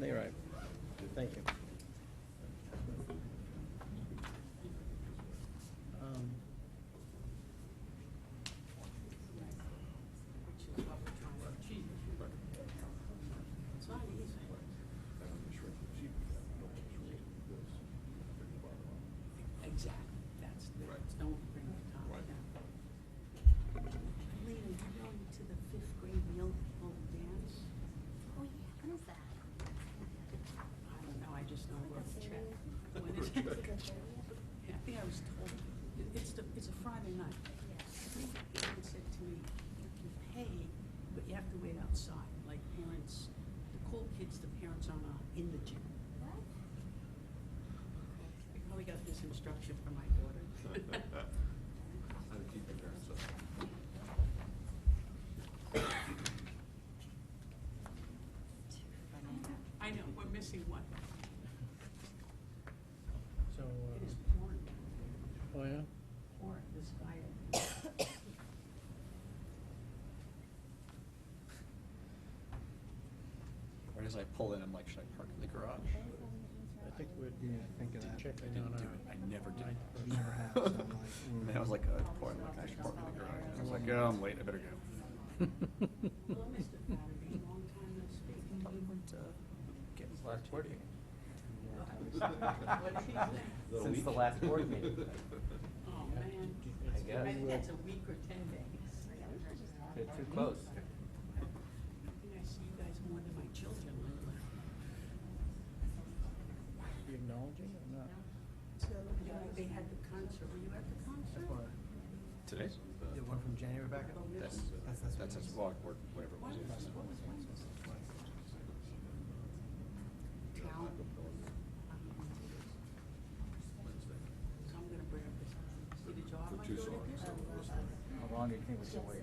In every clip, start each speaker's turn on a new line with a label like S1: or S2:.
S1: You're right. Thank you.
S2: Um,
S3: which is what we're trying to achieve. It's not easy. Exactly, that's, the- don't bring the top down. Lena, you going to the fifth grade meal bowl dance?
S4: Oh, yeah, when's that?
S3: I don't know, I just know where to check.
S4: Like
S3: When
S5: the
S3: is
S5: thirtieth?
S3: it?
S5: Like the
S3: Yeah, I think I was told, it- it's the, it's a Friday night. Someone said to me, you can pay, but you have to wait outside, like parents, the cool kids, the parents are not in the gym. I probably got this instruction from my daughter.
S5: How to keep your parents up.
S3: I know, we're missing one.
S2: So,
S3: It is
S2: uh,
S3: porn,
S2: oh yeah,
S3: porn, this guy.
S6: Right as I pull in, I'm like, should I park in the garage?
S2: I think we're,
S1: Yeah, I think of
S2: to
S1: that.
S2: check
S1: I
S2: it
S6: Didn't
S2: out.
S6: do it. I never did.
S1: I- it never happens. I'm like,
S6: And then I was like, uh, boy, I'm like, I should park in the garage. And I was like, oh, I'm late, I better go.
S3: Hello, Mr. Patterson, long time no speak.
S6: Probably weren't, uh, getting
S7: Last board
S3: What
S7: meeting.
S3: did he say?
S7: Since the last board meeting.
S3: Oh, man.
S7: I guess.
S3: I think that's a week or ten days.
S7: They're too close.
S3: I think I see you guys more than my children lately.
S2: You acknowledging it or not?
S3: So, you know, they had the concert, were you at the concert?
S6: Today's?
S1: The one from January back up?
S6: That's,
S1: That's- that's
S6: that's his vlog
S1: what it is.
S6: or whatever it
S3: What was,
S6: was.
S3: what was Wednesday? Town. So I'm gonna bring up this, see, did you have my daughter here?
S7: Oh, How long do you think we should wait?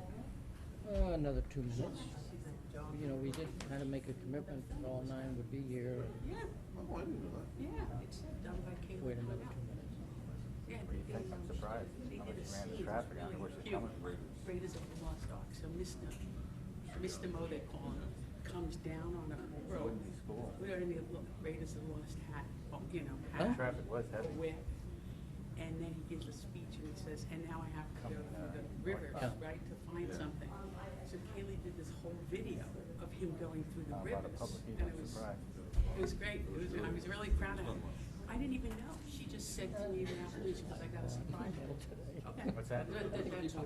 S2: Uh, another two minutes.
S3: She's at the job.
S2: You know, we did kind of make a commitment that all nine would be here.
S3: Yeah,
S5: Oh, I didn't know that.
S3: yeah, it's done by Caitlin.
S2: Wait another
S3: Cornell.
S2: two minutes.
S3: Yeah,
S7: What do you
S3: they-
S7: think? I'm surprised
S3: they
S7: how
S3: did a
S7: much
S3: scene, it
S7: random
S3: was
S7: traffic on
S3: really
S7: which is
S3: cute.
S7: coming. Raiders.
S3: Raiders of the Lost Ark, so Mr. Mr. Mo, they call him, comes down on a road.
S7: Whitney School.
S3: Wearing the lo- Raiders of the Lost hat, oh, you know,
S2: Huh?
S3: hat.
S7: Traffic was
S3: or
S7: heavy.
S3: whip. And then he gives a speech and he says, and now I have to go
S7: Coming, uh,
S3: through the river,
S2: Yeah.
S3: right, to find
S5: Yeah.
S3: something. So Kaylee did this whole video of him going through the
S7: How
S3: rivers.
S7: about a public
S3: and
S7: meeting?
S3: it
S7: I'm
S3: was-
S7: surprised.
S3: it was great. It was, I was really proud of her. I didn't even know. She just said to me when I was, because I got a surprise. Okay.
S7: What's that?
S3: That- that- that's all.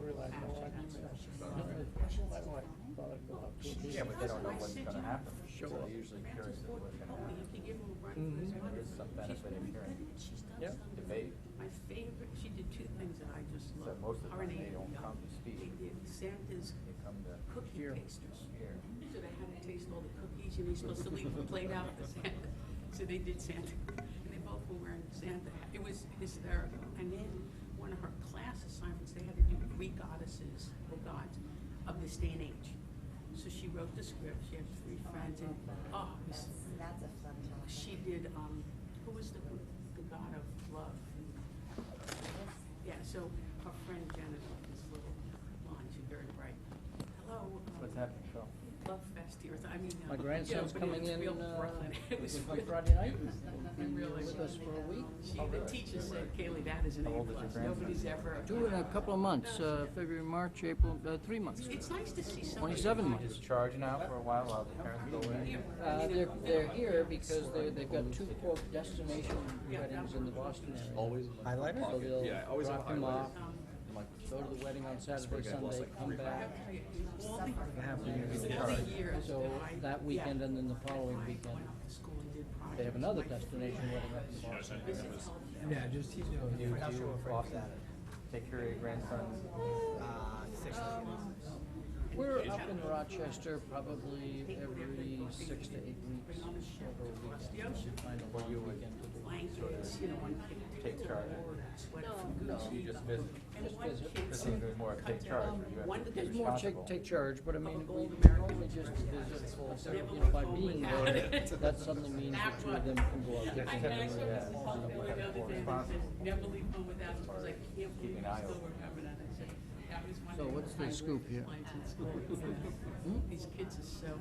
S7: Yeah, but they don't know what's gonna happen.
S2: Show
S7: So
S2: up.
S7: they're usually
S3: Francis
S7: curious as to
S3: Ford
S7: what's gonna
S3: Coppola, you
S7: happen.
S3: can give him a run for his
S2: Mhm.
S3: money.
S7: There's some
S3: She's
S7: benefit in
S3: really
S7: hearing. Mm-hmm.
S3: good. She's done
S2: Yep.
S3: some.
S7: Debate.
S3: My favorite, she did two things that I just
S7: So
S3: love.
S7: most of the
S3: Her and
S7: time they
S3: Andy
S7: don't
S3: Young.
S7: come to speak.
S3: They did Santa's
S7: They come to
S3: cookie
S2: Here.
S3: pasters.
S7: here.
S3: So they had to taste all the cookies, and they're supposed to leave the plate out for Santa. So they did Santa, and they both were wearing Santa. hats. It was hysterical. And then one of her class assignments, they had to do Greek goddesses or gods of this day and age. So she wrote the script. She had three friends, and oh, it was-
S4: That's a fun topic.
S3: she did. Um, who was the the god of love? Yeah. So her friend Janet wrote this little line. She's very bright. Hello. um,
S7: What's happening, Phil?
S3: Love fest here. I mean, uh,
S2: My
S3: yeah,
S2: grandson's
S3: but
S2: coming
S3: it's
S2: in,
S3: real
S2: uh,
S3: Brooklyn. It was
S2: on
S3: real-
S2: Friday night.
S3: it
S2: He'll be
S3: really
S2: with
S3: was.
S2: us for a week.
S3: She, the teacher said, Kaylee, that is an
S7: Oh,
S3: A
S7: How old is your
S3: plus.
S7: grandson?
S3: Nobody's ever.
S2: Do it in a couple of months, uh, February, March, April, uh, three months.
S3: It's nice to see somebody.
S2: 27
S3: who
S2: months.
S3: is
S7: Just charging out for a while while the parents go in.
S2: Uh, they're, they're here because they're, they've got two quote destination weddings in the Boston area.
S6: Always.
S1: Highlighter?
S2: So they'll
S6: Yeah, I always have
S2: drop them
S6: highlighter.
S2: off,
S3: um,
S6: I'm like,
S2: go to the wedding on Saturday,
S6: I've lost
S2: Sunday,
S6: like
S2: come
S6: three
S2: back.
S3: All the,
S1: have to use the
S3: all
S1: card.
S3: the years.
S2: So
S3: I-
S2: that
S3: yeah,
S2: weekend and then the
S3: when
S2: following
S3: I
S2: weekend,
S3: went off to school and did
S2: They have
S3: projects,
S2: another
S3: my-
S2: destination wedding up in Boston.
S3: This is healthy.
S1: Yeah, just, you know,
S7: You
S1: I'm
S7: do
S1: so afraid of
S7: often
S1: that.
S7: take care of your grandsons.
S1: Uh, six kids.
S2: We're up in Rochester probably every six to eight weeks over a weekend. Find a long weekend to do.
S3: blankets, you know, one kid
S7: Take charge.
S3: sweat from
S2: No,
S3: Gucci.
S7: you just visit.
S3: And
S2: Just
S3: one
S2: visit.
S3: kid
S7: This is more
S3: cut
S7: take
S3: their-
S7: charge. where You
S3: one
S7: have to be
S2: There's more
S7: responsible.
S2: take, take charge, but I mean, we normally just visit for, you know, by being there, that suddenly means that two of them can go
S3: I,
S2: out.
S3: I
S2: different.
S3: saw Mrs. Buckfield the other day, and I said,
S7: Responsible.
S3: never leave home without it, because I can't believe you
S7: Keeping an eye
S3: still
S7: open.
S3: remember that. I said, that was one
S2: So
S3: of
S2: what's the
S3: my
S2: scoop here? Hmm?
S3: complaints in school, you know? These kids are so